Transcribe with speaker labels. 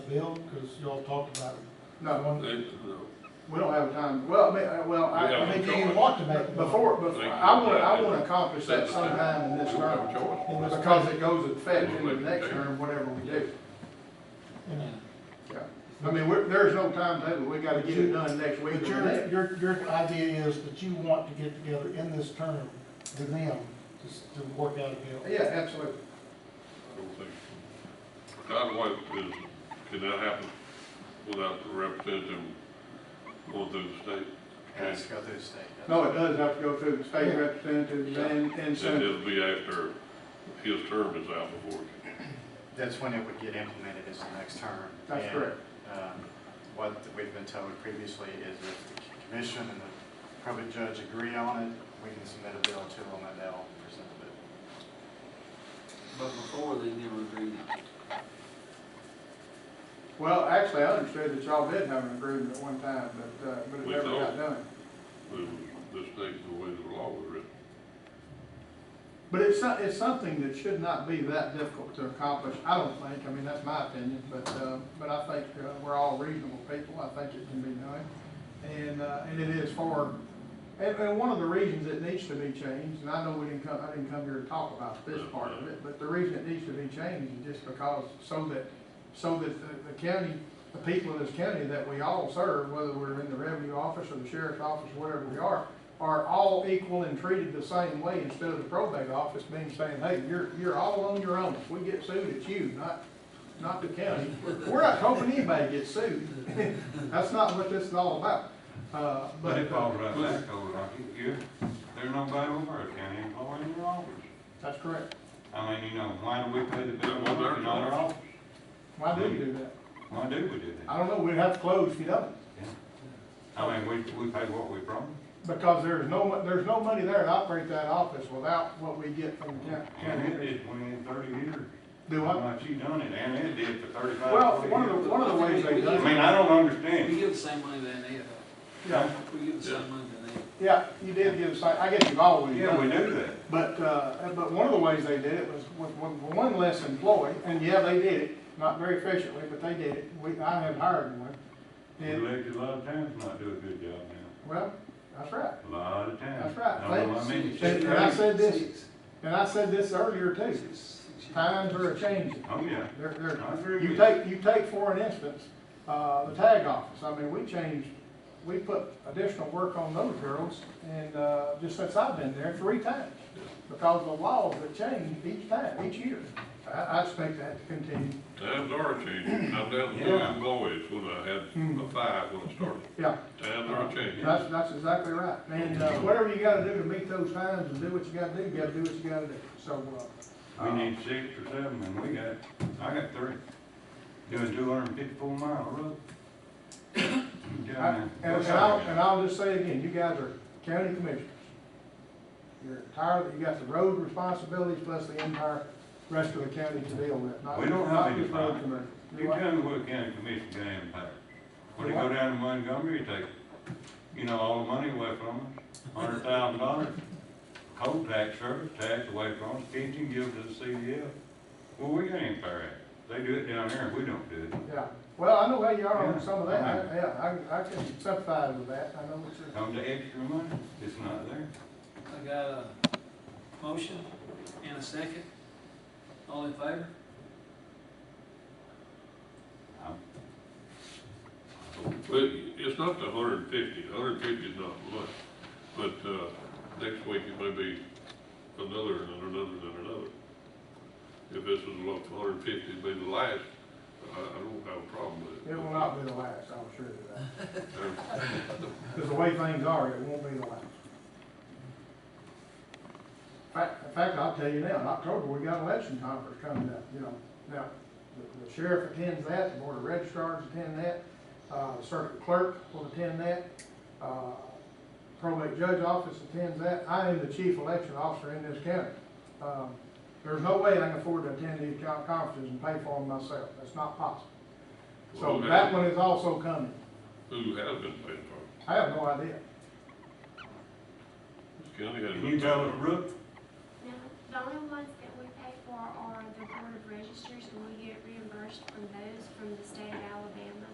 Speaker 1: built, because y'all talked about it?
Speaker 2: No,
Speaker 3: They, no.
Speaker 2: we don't have time, well, I mean, uh, well, I,
Speaker 3: Yeah.
Speaker 2: I
Speaker 1: I
Speaker 2: mean,
Speaker 1: mean, do you want to make?
Speaker 2: before, before, I wanna, I wanna accomplish that sometime in this
Speaker 3: We don't have a
Speaker 2: term.
Speaker 3: choice.
Speaker 1: In this,
Speaker 2: Because it goes in effect in the next term, whatever we do.
Speaker 1: you know,
Speaker 2: Yeah. I mean, we're, there's no timetable, we gotta get it done next week
Speaker 1: But
Speaker 2: or
Speaker 1: your,
Speaker 2: next.
Speaker 1: your, your idea is that you want to get together in this term with them to, s- to work out a deal.
Speaker 2: Yeah, absolutely.
Speaker 3: I don't think. Either way, is, can that happen without the representative going through the state?
Speaker 4: Has to go through the state. doesn't
Speaker 2: No, it does have to go through the state representatives and, and
Speaker 3: And
Speaker 2: senators.
Speaker 3: it'll be after his term is out before. it-
Speaker 4: it? That's when it would get implemented is the next term.
Speaker 2: That's
Speaker 4: And,
Speaker 2: correct.
Speaker 4: um, What we've been told previously is if the commission and the probate judge agree on it, we can submit a bill to them and they'll present the bill.
Speaker 5: But before, they never agreed.
Speaker 2: Well, actually, I understood that y'all did have an agreement at one time, but, uh, but it
Speaker 3: We
Speaker 2: never got
Speaker 3: don't.
Speaker 2: done.
Speaker 3: it was- This thing's the way the law was written.
Speaker 2: But it's, some- it's something that should not be that difficult to accomplish, I don't think, I mean, that's my opinion, but, uh, but I think uh, we're all reasonable people, I think it can be done. And, uh, and it is for, and, and one of the reasons it needs to be changed, and I know we didn't come, I didn't come here to talk about this part of it, but the reason it needs to be changed is just because, so that, so that the- the county, the people in this county that we all serve, whether we're in the revenue office or the sheriff's office, whatever we are, are all equal and treated the same way instead of the probate office being saying, hey, you're, you're all on your own. If we get sued, it's you, not, not the county. We're not hoping anybody gets sued. That's not what this is all about. Uh,
Speaker 6: But
Speaker 2: but,
Speaker 6: it falls right
Speaker 2: uh,
Speaker 6: back over, Rocky, you're, there's nobody over a county employee in your office.
Speaker 2: that's correct.
Speaker 6: I mean, you know, why do we pay the bill
Speaker 3: That was
Speaker 6: over
Speaker 3: our
Speaker 6: in our
Speaker 3: fault.
Speaker 6: office?
Speaker 2: Why do you do that?
Speaker 6: Why do we do that?
Speaker 2: I don't know. We'd have to close if you don't.
Speaker 6: I mean, we, we pay what we promised.
Speaker 2: Because there's no, mon- there's no money there to operate that office without what we get from the county.
Speaker 6: And it did twenty, thirty years.
Speaker 2: Do
Speaker 6: How
Speaker 2: I?
Speaker 6: much you done it, and it did for
Speaker 2: Well,
Speaker 6: thirty-five,
Speaker 2: one
Speaker 6: forty
Speaker 2: of
Speaker 6: years.
Speaker 2: the, one of the ways they
Speaker 6: I
Speaker 2: do it,
Speaker 6: mean, I don't
Speaker 5: We
Speaker 6: understand.
Speaker 5: give the same money to NAF.
Speaker 2: yeah,
Speaker 5: We give the same money to NAF.
Speaker 2: yeah, you did give, us- I guess you've always done
Speaker 6: Yeah, we
Speaker 2: that.
Speaker 6: do that.
Speaker 2: But, uh, but one of the ways they did it was with one- one less employee, and yeah, they did it, not very efficiently, but they did it. We, I have hired one.
Speaker 6: We
Speaker 2: And,
Speaker 6: elected a lot of towns not do a good job
Speaker 2: well, that's right.
Speaker 6: now, a lot of towns.
Speaker 2: That's right.
Speaker 6: I know, I mean,
Speaker 2: They-
Speaker 6: it's
Speaker 2: And I
Speaker 6: crazy.
Speaker 2: said this, and I said this earlier too, times are a-changing.
Speaker 6: Oh, yeah,
Speaker 2: They're, they're,
Speaker 6: I agree with
Speaker 2: You
Speaker 6: you.
Speaker 2: take, you take for an instance, uh, the tag office, I mean, we changed, we put additional work on those girls, and, uh, just since I've been there, three times, because the laws have changed each time, each year. I, I expect that to continue,
Speaker 3: Times are changing. I'm down to two
Speaker 6: Yeah.
Speaker 3: employees when I had a five when I started.
Speaker 2: yeah,
Speaker 3: Times are changing.
Speaker 2: that's, that's exactly right. And, uh, whatever you gotta do to meet those times and do what you gotta do, you gotta do what you gotta do, so, uh.
Speaker 6: We need six or seven, and we got, I got three, doing two hundred and fifty-four mile road.
Speaker 2: uh, I-
Speaker 6: Down there.
Speaker 2: And and I'll, and I'll just say again, you guys are county commissioners. You're tired, you got the road responsibilities plus the entire rest of the county to deal with. not-
Speaker 6: We don't have
Speaker 2: not just
Speaker 6: any
Speaker 2: road
Speaker 6: fire.
Speaker 2: commissioners.
Speaker 6: You
Speaker 2: You what?
Speaker 6: tell me what county commission got in power. When they go down to Montgomery, you take, you know, all the money away from us, hundred thousand dollars. Coal tax, service tax away from us, pension give to the CDL. Well, we got in power at, they do it down there, and we don't do it.
Speaker 2: Yeah, well, I know how you are on
Speaker 6: Yeah.
Speaker 2: some of that, I- yeah, I, I can sympathize with that, I know what you're.
Speaker 6: Come to extra money, it's not there.
Speaker 5: I got a motion and a second. All in favor?
Speaker 6: I'm-
Speaker 3: Well, it's not the hundred and fifty, hundred and fifty is not much, but, uh, next week it may be another and another and another. If this is a hundred and fifty, it'd be the last, I, I don't have a problem with it.
Speaker 2: It will not be the last, I'm sure of that,
Speaker 3: Uh,
Speaker 2: because the way things are, it won't be the last. In fact, in fact, I'll tell you now, in October, we got election conference coming up, you know, now, the- the sheriff attends that, the board of registrars attend that, uh, the circuit clerk will attend that, uh, probate judge office attends that, I am the chief election officer in this county. Um, There's no way I can afford to attend these con- conferences and pay for them myself, that's not possible. So
Speaker 3: Well,
Speaker 2: that one is also coming,
Speaker 3: Who has been paying for it?
Speaker 2: I have no idea.
Speaker 3: The County has.
Speaker 6: Can you tell us, Brooke,
Speaker 7: No, the only ones that we pay for are the Board of Registers, and we get reimbursed from those from the state of